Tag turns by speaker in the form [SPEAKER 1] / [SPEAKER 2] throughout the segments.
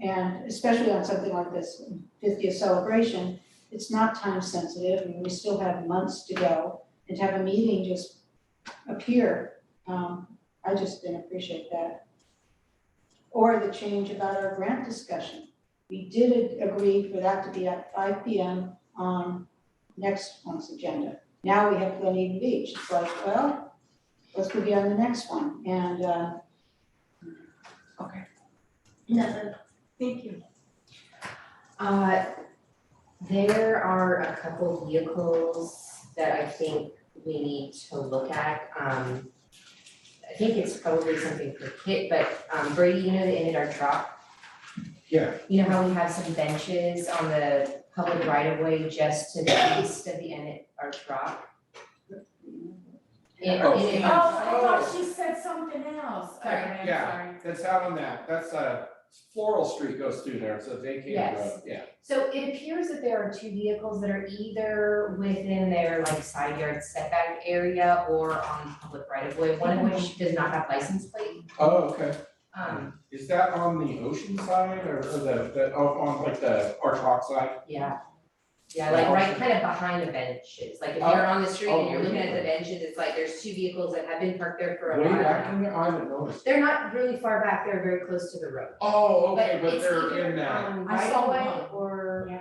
[SPEAKER 1] And especially on something like this fiftieth celebration, it's not time sensitive, and we still have months to go. And to have a meeting just appear, um, I just didn't appreciate that. Or the change about our grant discussion. We did agree for that to be at five P M on next month's agenda. Now we have Glen Eden Beach, it's like, well, let's put it on the next one, and, uh,
[SPEAKER 2] Nothing. Thank you.
[SPEAKER 3] Uh, there are a couple vehicles that I think we need to look at, um. I think it's probably something for Kit, but um Brady, you know the end of our truck?
[SPEAKER 4] Yeah.
[SPEAKER 3] You know how we have some benches on the public right of way just to the east of the end of our truck? It-
[SPEAKER 4] Oh.
[SPEAKER 3] it
[SPEAKER 2] Oh, I
[SPEAKER 3] is-
[SPEAKER 2] thought she said something else.
[SPEAKER 3] Sorry.
[SPEAKER 2] Okay, I'm
[SPEAKER 4] Yeah.
[SPEAKER 2] sorry.
[SPEAKER 4] That's out on that, that's uh Floral Street goes through there, it's a vacated
[SPEAKER 3] Yes.
[SPEAKER 4] road, yeah.
[SPEAKER 3] So it appears that there are two vehicles that are either within their like side yard setback area or on public right of way, one of
[SPEAKER 4] Mm-hmm.
[SPEAKER 3] which does not have license plate.
[SPEAKER 4] Oh, okay.
[SPEAKER 3] Um,
[SPEAKER 4] Is that on the ocean side or or the, the, oh, on like the arch rock side?
[SPEAKER 3] yeah. Yeah, like right kind of behind the benches, like if
[SPEAKER 4] Oh,
[SPEAKER 3] you're on the street and you're looking at the benches, it's like there's two vehicles that have been parked there for a
[SPEAKER 4] Way
[SPEAKER 3] while.
[SPEAKER 4] back in there, I haven't noticed.
[SPEAKER 3] They're not really far back, they're very close to the road.
[SPEAKER 4] Oh, okay, but
[SPEAKER 3] it's
[SPEAKER 4] they're
[SPEAKER 3] either
[SPEAKER 4] in that,
[SPEAKER 3] on
[SPEAKER 2] I
[SPEAKER 3] right
[SPEAKER 2] saw
[SPEAKER 3] of way
[SPEAKER 2] one.
[SPEAKER 3] or,
[SPEAKER 2] Yeah.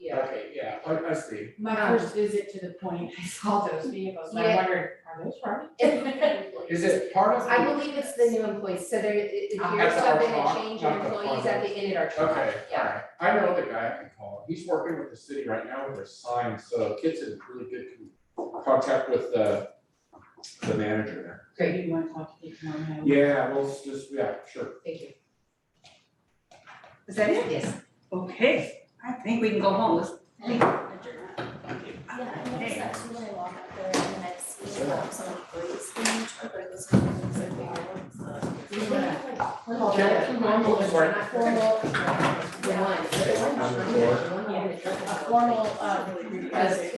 [SPEAKER 3] yeah,
[SPEAKER 4] okay, yeah, I I see.
[SPEAKER 2] My
[SPEAKER 3] Um,
[SPEAKER 2] first visit to the point, I saw those vehicles, and I
[SPEAKER 3] Yeah.
[SPEAKER 2] wondered, are those from?
[SPEAKER 4] Is it part of
[SPEAKER 3] I
[SPEAKER 4] the,
[SPEAKER 3] believe it's the new employees, so there, if
[SPEAKER 2] Ah.
[SPEAKER 3] you're
[SPEAKER 4] At the
[SPEAKER 3] something
[SPEAKER 4] Archrock,
[SPEAKER 3] to change your
[SPEAKER 4] not the
[SPEAKER 3] employees at the end of our truck,
[SPEAKER 4] okay,
[SPEAKER 3] yeah.
[SPEAKER 4] alright. I know the guy I can call, he's working with the city right now with their signs, so Kit's in really good contact with the the manager there.
[SPEAKER 3] Great,
[SPEAKER 2] you wanna talk to me tomorrow?
[SPEAKER 4] Yeah, well, it's just, yeah, sure.
[SPEAKER 3] thank you. Is that it? Yes.
[SPEAKER 5] Okay, I think we can go home. Let's-
[SPEAKER 6] Yeah, I noticed that too when I walk up there and then I see
[SPEAKER 4] Yeah.
[SPEAKER 6] um, some of the grates in each truck, but it was kind of like they
[SPEAKER 4] Yeah.
[SPEAKER 3] One, one,
[SPEAKER 4] Number four.
[SPEAKER 3] one, one, one.
[SPEAKER 2] A formal, uh,
[SPEAKER 6] really
[SPEAKER 2] because